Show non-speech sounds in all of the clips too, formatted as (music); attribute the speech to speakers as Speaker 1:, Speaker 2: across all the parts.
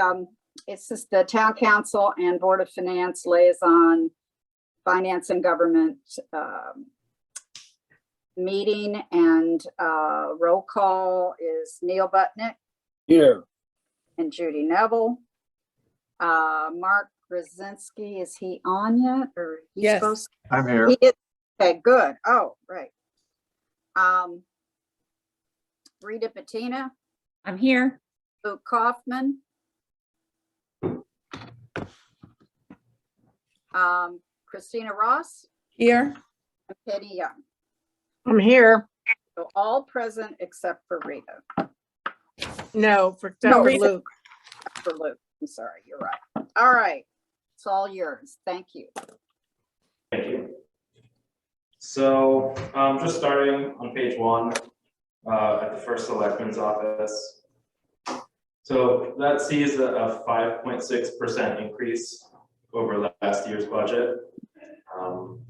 Speaker 1: um, it's just the town council and board of finance liaison, finance and government, um, meeting and, uh, roll call is Neil Butnick
Speaker 2: Here,
Speaker 1: and Judy Neville. Uh, Mark Krasinski, is he on yet or? he's
Speaker 3: Yes.
Speaker 1: supposed to
Speaker 4: I'm here.
Speaker 1: he is- Okay, good. Oh, right. Um, Rita Patina,
Speaker 5: I'm here.
Speaker 1: Luke Kaufman. Um, Christina Ross,
Speaker 3: Here,
Speaker 1: and Penny Young.
Speaker 6: I'm here.
Speaker 1: So all present except for Rita,
Speaker 6: No,
Speaker 1: No,
Speaker 6: for except for
Speaker 1: Rita.
Speaker 6: Luke.
Speaker 1: for Luke. I'm sorry, you're right. All right. It's all yours. Thank you.
Speaker 7: Thank you. So, um, just starting on page one, uh, at the first selectman's office. So that sees a, five point six percent increase over last year's budget. Um,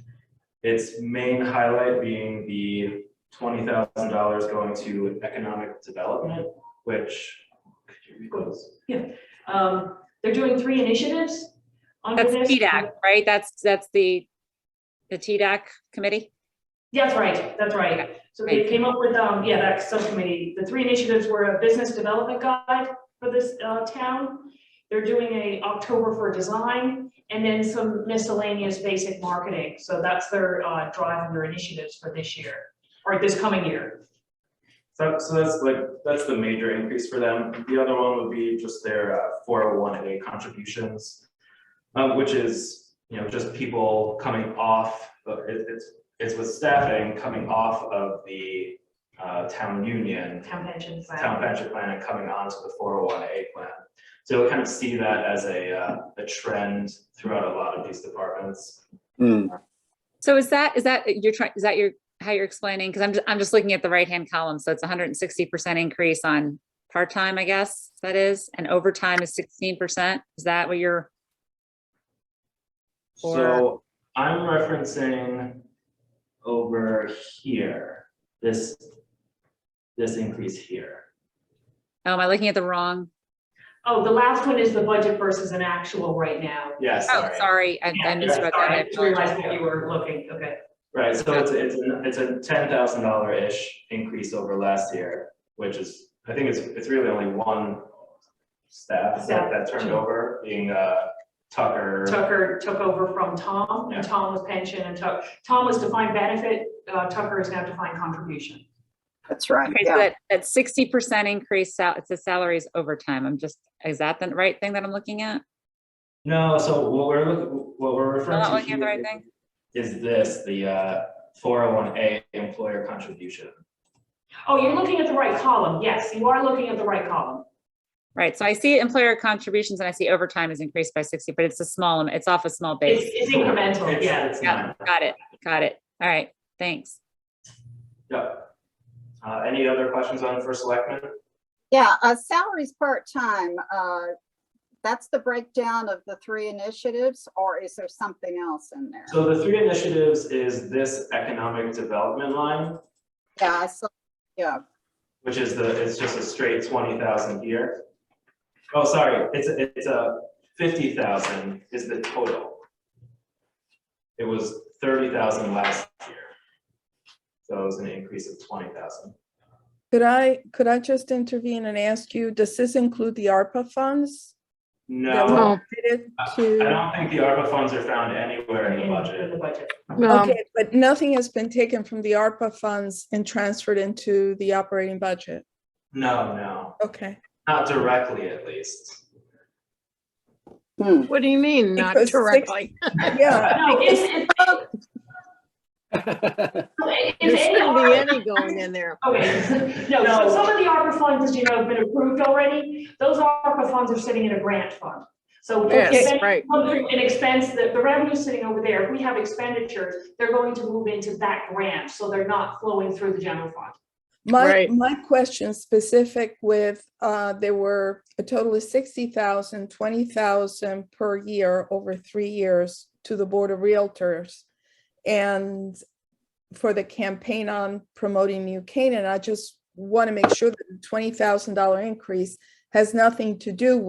Speaker 7: Its main highlight being the twenty thousand dollars going to economic development, which, could you read those?
Speaker 8: Um, they're doing three initiatives under
Speaker 5: That's
Speaker 8: this.
Speaker 5: TDAC, right? That's, that's the, the TDAC committee?
Speaker 8: That's right, that's right. So they
Speaker 5: Right.
Speaker 8: came up with, um, yeah, that subcommittee, the three initiatives were a business development guide for this, uh, town. They're doing a October for design and then some miscellaneous basic marketing. So that's their, uh, drive and their initiatives for this year, or this coming year.
Speaker 7: So, so that's like, that's the major increase for them. The other one would be just their four oh one A contributions. um, which is, you know, just people coming off, but it, it's, it's with staffing coming off of the uh, town union.
Speaker 8: Town pension plan.
Speaker 7: Town pension plan and coming on to the four oh one A plan. So we kind of see that as a, uh, a trend throughout a lot of these departments.
Speaker 2: Hmm,
Speaker 5: So is that, is that, you're trying, is that your, how you're explaining? Because I'm, just I'm just looking at the right-hand column, so it's hundred and sixty percent increase on part-time, I guess, that is, and overtime is sixteen percent. Is that what you're,
Speaker 7: So I'm referencing over here, this, this increase here.
Speaker 5: oh, am I looking at the wrong?
Speaker 8: Oh, the last one is the budget versus an actual right now.
Speaker 7: Yeah,
Speaker 5: Oh,
Speaker 7: sorry.
Speaker 5: sorry, I
Speaker 8: Yeah,
Speaker 5: I
Speaker 8: yeah, sorry,
Speaker 5: misread that. I
Speaker 8: I just realized
Speaker 5: apologize.
Speaker 8: that you were looking, okay.
Speaker 7: Right, so it's, a- it's, a- it's a ten thousand dollar-ish increase over last year, which is, I think it's, it's really only one staff that, that turned over, being, uh, Tucker.
Speaker 8: Tucker took over from Tom, and Tom was pension, and Tuck, Tom was defined benefit, uh, Tucker is now defined contribution.
Speaker 1: That's right.
Speaker 5: Okay, so
Speaker 1: Yeah.
Speaker 5: that, that sixty percent increase, sal- it says salaries overtime. I'm just, is that the right thing that I'm looking at?
Speaker 7: No, so what we're, look- what we're referring
Speaker 5: not
Speaker 7: to
Speaker 5: looking at the right
Speaker 7: here
Speaker 5: thing?
Speaker 7: Is this, the, uh, four oh one A employer contribution.
Speaker 8: Oh, you're looking at the right column, yes, you are looking at the right column.
Speaker 5: Right, so I see employer contributions and I see overtime is increased by sixty, but it's a small, am- it's off a small
Speaker 8: It's,
Speaker 5: base.
Speaker 8: it's incremental,
Speaker 7: It's-
Speaker 8: yeah.
Speaker 7: It's
Speaker 5: Yeah,
Speaker 7: not.
Speaker 5: got it, got it. All right, thanks.
Speaker 7: Yep. Uh, any other questions on first selectmen?
Speaker 1: Yeah, uh, salaries part-time, uh, that's the breakdown of the three initiatives, or is there something else in there?
Speaker 7: So the three initiatives is this economic development line,
Speaker 1: Yeah, I saw, yeah,
Speaker 7: which is the, it's just a straight twenty thousand here. Oh, sorry, it's, a- it's a fifty thousand is the total. It was thirty thousand last year. So it was an increase of twenty thousand.
Speaker 3: could I, could I just intervene and ask you, does this include the ARPA funds? that
Speaker 7: No,
Speaker 3: were related
Speaker 7: Uh, I
Speaker 3: To,
Speaker 7: don't think the ARPA funds are found anywhere in the
Speaker 8: In
Speaker 7: budget.
Speaker 8: the budget.
Speaker 6: No,
Speaker 3: okay, but nothing has been taken from the ARPA funds and transferred into the operating budget.
Speaker 7: No, no,
Speaker 3: Okay,
Speaker 7: not directly at least.
Speaker 1: hmm.
Speaker 6: what do you mean, not
Speaker 3: Because six-
Speaker 6: directly?
Speaker 3: yeah,
Speaker 8: No, it's, it's,
Speaker 6: There
Speaker 8: it's
Speaker 6: shouldn't be
Speaker 8: AR,
Speaker 6: any going in there. (laughs)
Speaker 8: okay, no, so some of the ARPA funds, as you know, have been approved already, those ARPA funds are sitting in a grant fund. So.
Speaker 6: Yes,
Speaker 8: Okay.
Speaker 6: right.
Speaker 8: come through an expense, the, the revenue's sitting over there, if we have expenditures, they're going to move into that grant, so they're not flowing through the general fund.
Speaker 3: my,
Speaker 6: Right.
Speaker 3: my question specific with, uh, there were a total of 60,000, 20,000 per year over three years to the Board of Realtors. And for the campaign on promoting New Canaan, I just want to make sure that the $20,000 increase has nothing to do